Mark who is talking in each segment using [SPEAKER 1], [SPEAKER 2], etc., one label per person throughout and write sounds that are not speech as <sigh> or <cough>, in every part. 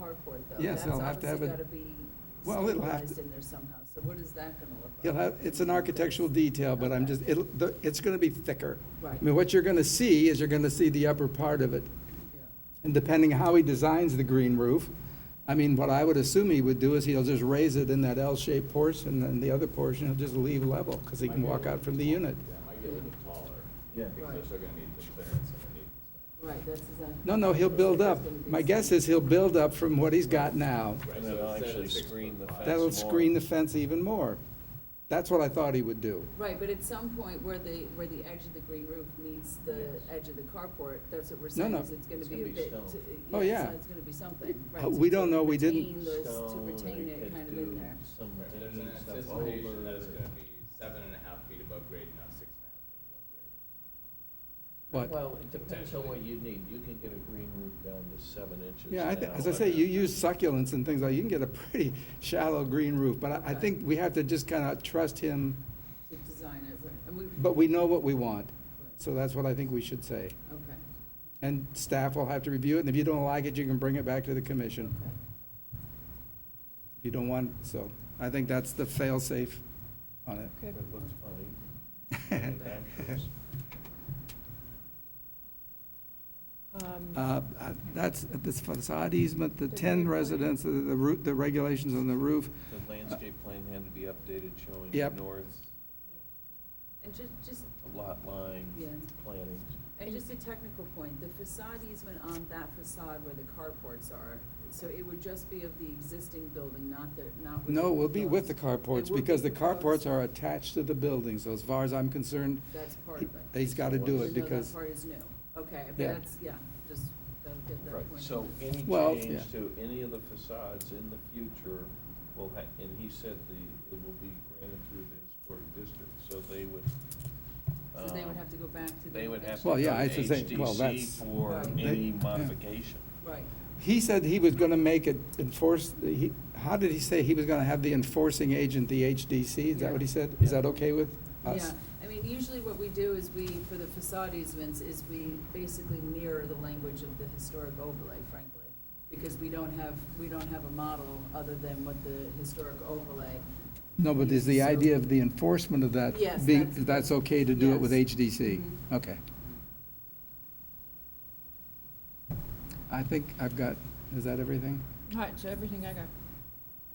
[SPEAKER 1] carport, though.
[SPEAKER 2] Yes, they'll have to have
[SPEAKER 1] That's
[SPEAKER 2] a-
[SPEAKER 1] obviously gotta
[SPEAKER 2] Well,
[SPEAKER 1] be
[SPEAKER 2] it'll have
[SPEAKER 1] stabilized
[SPEAKER 2] to-
[SPEAKER 1] in there somehow, so what is that gonna look like?
[SPEAKER 2] You'll have, it's an architectural detail, but I'm just, it'll, the- it's gonna be thicker. I
[SPEAKER 1] Right,
[SPEAKER 2] mean, what you're gonna see is you're gonna see the upper part of it.
[SPEAKER 1] yeah.
[SPEAKER 2] And depending how he designs the green roof, I mean, what I would assume he would do is he'll just raise it in that L-shaped portion, and the other portion he'll just leave level, because he can walk out from the unit.
[SPEAKER 3] Yeah, it might get a little bit taller.
[SPEAKER 4] Yeah.
[SPEAKER 3] Because they're still gonna need the clearance underneath and stuff.
[SPEAKER 1] Right, that's exactly.
[SPEAKER 2] No, no, he'll build up. My guess is he'll build up from what he's got now.
[SPEAKER 3] Right,
[SPEAKER 4] And
[SPEAKER 3] so
[SPEAKER 4] then I'll
[SPEAKER 3] instead of
[SPEAKER 4] actually
[SPEAKER 3] six
[SPEAKER 4] screen
[SPEAKER 3] foot
[SPEAKER 4] the
[SPEAKER 3] five-
[SPEAKER 4] fence.
[SPEAKER 2] That'll
[SPEAKER 4] small.
[SPEAKER 2] screen the fence even more. That's what I thought he would do.
[SPEAKER 1] Right, but at some point where the, where the edge of the green roof meets the
[SPEAKER 4] Yes.
[SPEAKER 1] edge of the carport, that's what we're saying,
[SPEAKER 2] no.
[SPEAKER 1] is it's gonna
[SPEAKER 4] It's
[SPEAKER 1] be a
[SPEAKER 4] gonna be
[SPEAKER 1] bit.
[SPEAKER 4] stone.
[SPEAKER 1] to- so
[SPEAKER 2] Oh, yeah.
[SPEAKER 1] It's gonna be something, right.
[SPEAKER 2] Uh,
[SPEAKER 1] so
[SPEAKER 2] we
[SPEAKER 1] to
[SPEAKER 2] don't know, we didn't-
[SPEAKER 1] retain those- To
[SPEAKER 4] Stone,
[SPEAKER 1] retain
[SPEAKER 4] they
[SPEAKER 1] it
[SPEAKER 4] could
[SPEAKER 1] kind of
[SPEAKER 4] do
[SPEAKER 1] in there.
[SPEAKER 4] some
[SPEAKER 3] Right, There's an
[SPEAKER 4] digging stuff
[SPEAKER 3] anticipation that it's
[SPEAKER 4] over.
[SPEAKER 3] gonna be seven and a half feet above grade, not six and a half feet above grade.
[SPEAKER 2] But,
[SPEAKER 4] Well, it depends on what you need. You can get a green roof down to seven inches
[SPEAKER 2] yeah, I thi-
[SPEAKER 4] now.
[SPEAKER 2] as I say, you use succulents and things like, you can get a pretty <laughs> shallow green roof, but I, I think we have to just kind of trust him,
[SPEAKER 1] To design it, right, and we.
[SPEAKER 2] but we know what we want.
[SPEAKER 1] right,
[SPEAKER 2] So that's what I think we should say.
[SPEAKER 1] Okay,
[SPEAKER 2] And staff will have to review it, and if you don't like it, you can bring it back to the commission.
[SPEAKER 1] okay.
[SPEAKER 2] If you don't want, so I think that's the fail-safe on it.
[SPEAKER 4] That looks
[SPEAKER 2] <laughs>
[SPEAKER 4] funny.
[SPEAKER 5] Um,
[SPEAKER 2] Uh, uh, That's, this facade easement, the 10 residents, the the roo- the regulations on the roof,
[SPEAKER 4] The landscape plan had to be updated showing
[SPEAKER 2] Yep.
[SPEAKER 4] north,
[SPEAKER 1] And ju- just,
[SPEAKER 4] a lot line,
[SPEAKER 1] Yeah.
[SPEAKER 4] planting.
[SPEAKER 1] and just a technical point, the facade easement on that facade where the carports are, so it would just be of the existing building, not the, not with.
[SPEAKER 2] No, we'll be with the
[SPEAKER 1] It
[SPEAKER 2] carports,
[SPEAKER 1] will be
[SPEAKER 2] because the
[SPEAKER 1] proposed.
[SPEAKER 2] carports are attached to the building, so as far as I'm concerned,
[SPEAKER 1] That's part of it.
[SPEAKER 2] he's got to
[SPEAKER 1] Even
[SPEAKER 2] do it,
[SPEAKER 1] though
[SPEAKER 2] because,
[SPEAKER 1] That part is new, okay, but
[SPEAKER 2] Yeah.
[SPEAKER 1] that's, yeah, just gotta get that
[SPEAKER 4] Right,
[SPEAKER 1] point.
[SPEAKER 4] so any
[SPEAKER 2] Well, yeah.
[SPEAKER 4] change to any of the facades in the future will ha, and he said the, it will be granted through the historic district, so they would.
[SPEAKER 1] So they would
[SPEAKER 4] um,
[SPEAKER 1] have to go back to the.
[SPEAKER 4] They would have to
[SPEAKER 2] Well,
[SPEAKER 4] go
[SPEAKER 2] yeah,
[SPEAKER 4] to
[SPEAKER 2] I should say- well,
[SPEAKER 4] HDC
[SPEAKER 2] that's-
[SPEAKER 4] for
[SPEAKER 1] Right.
[SPEAKER 2] They-
[SPEAKER 4] any
[SPEAKER 2] yeah.
[SPEAKER 4] modification.
[SPEAKER 1] Right,
[SPEAKER 2] he said he was going to make it enforce, he, how did he say he was going to have the enforcing agent, the HDC? Is that what he said? Is that okay with
[SPEAKER 1] yeah,
[SPEAKER 2] us?
[SPEAKER 1] I mean, usually what we do is we, for the facade easements, is we basically mirror the language of the historic overlay, frankly. Because we don't have, we don't have a model other than what the historic overlay.
[SPEAKER 2] No, but is the
[SPEAKER 1] So-
[SPEAKER 2] idea of the enforcement of that
[SPEAKER 1] Yes,
[SPEAKER 2] being,
[SPEAKER 1] that's-
[SPEAKER 2] that's okay to do it with
[SPEAKER 1] Yes.
[SPEAKER 2] HDC?
[SPEAKER 1] Mhm.
[SPEAKER 2] Okay. I think I've got, is that everything?
[SPEAKER 5] All right, so everything I got.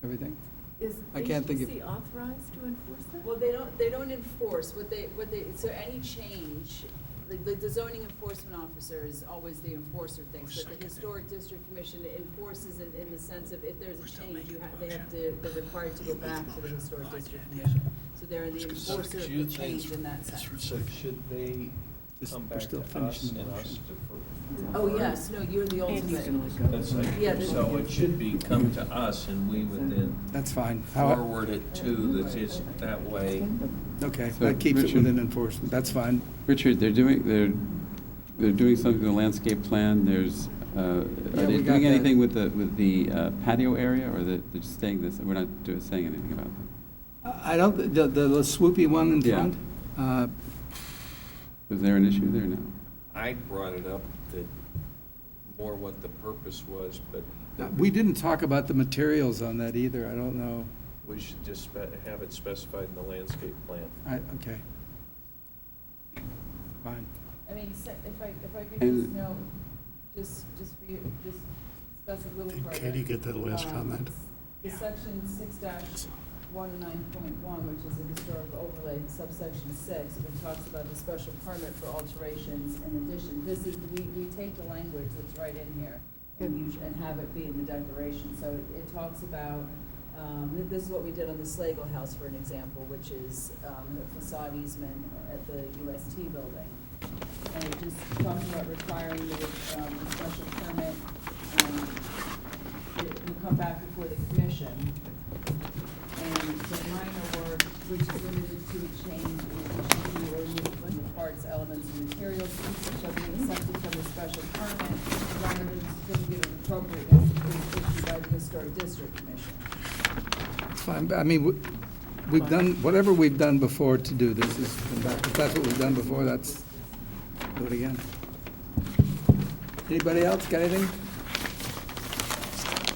[SPEAKER 2] Everything?
[SPEAKER 6] Is
[SPEAKER 2] I can't think of-
[SPEAKER 6] HDC authorized to enforce that?
[SPEAKER 1] Well, they don't, they don't enforce, what they, what they, so any change, the, the zoning enforcement officer is always the enforcer of things, but the historic district commission enforces it in the sense of if there's a change, you have, they have to, they're required to go back to the historic district commission. So they're the enforcer of the change in that sense.
[SPEAKER 4] So should they
[SPEAKER 2] Just-
[SPEAKER 4] come
[SPEAKER 2] we're
[SPEAKER 4] back to
[SPEAKER 2] still
[SPEAKER 4] us
[SPEAKER 2] finishing the
[SPEAKER 4] and
[SPEAKER 2] motion.
[SPEAKER 4] us to? for-
[SPEAKER 1] Oh, yes, no, you're the ultimate.
[SPEAKER 4] That's
[SPEAKER 1] Yeah,
[SPEAKER 4] like,
[SPEAKER 1] this-
[SPEAKER 4] so it should be come to us and we would then
[SPEAKER 2] That's fine. How-
[SPEAKER 4] forward it to, that is, that way.
[SPEAKER 2] Okay,
[SPEAKER 7] So,
[SPEAKER 2] that keeps it
[SPEAKER 7] Richard-
[SPEAKER 2] within enforcement, that's fine.
[SPEAKER 7] Richard, they're doing, they're, they're doing something with the landscape plan, there's, uh, are
[SPEAKER 2] Yeah, we
[SPEAKER 7] they
[SPEAKER 2] got
[SPEAKER 7] doing
[SPEAKER 2] that.
[SPEAKER 7] anything with the, with the uh, patio area, or they're they're just staying this, we're not doing, saying anything about that?
[SPEAKER 2] I don't, the, the the swoopy one in
[SPEAKER 7] Yeah.
[SPEAKER 2] front, uh,
[SPEAKER 7] Was there an issue there now?
[SPEAKER 4] I brought it up that more what the purpose was, but
[SPEAKER 2] we didn't talk about the materials on that either, I don't know.
[SPEAKER 4] we should just spe- have it specified in the landscape plan.
[SPEAKER 2] I, okay. Fine.
[SPEAKER 1] I mean, se- if I, if I could just
[SPEAKER 7] And-
[SPEAKER 1] know, just, just for you, just discuss a little further.
[SPEAKER 8] Katie get that last
[SPEAKER 1] um,
[SPEAKER 8] comment?
[SPEAKER 1] The section six dash one nine point one, which is a historic overlay, subsection six, which talks about the special permit for alterations and addition. This is, we, we take the language that's right in here and us- and have it be in the declaration. So it, it talks about, um, th- this is what we did on the Slagle House, for an example, which is, um, the facade easement at the UST building. And it just talks about requiring the, um, the special permit, um, it will come back before the commission. And the minor work, which is limited to a change in addition to or movement parts, elements, and materials, shall be accepted from the special permit, rather than certificate of appropriateness is issued by the historic district commission.
[SPEAKER 2] It's fine, but I mean, we- we've done, whatever we've done before to do this is, if that's what we've done before, that's, do it again. Anybody else got anything?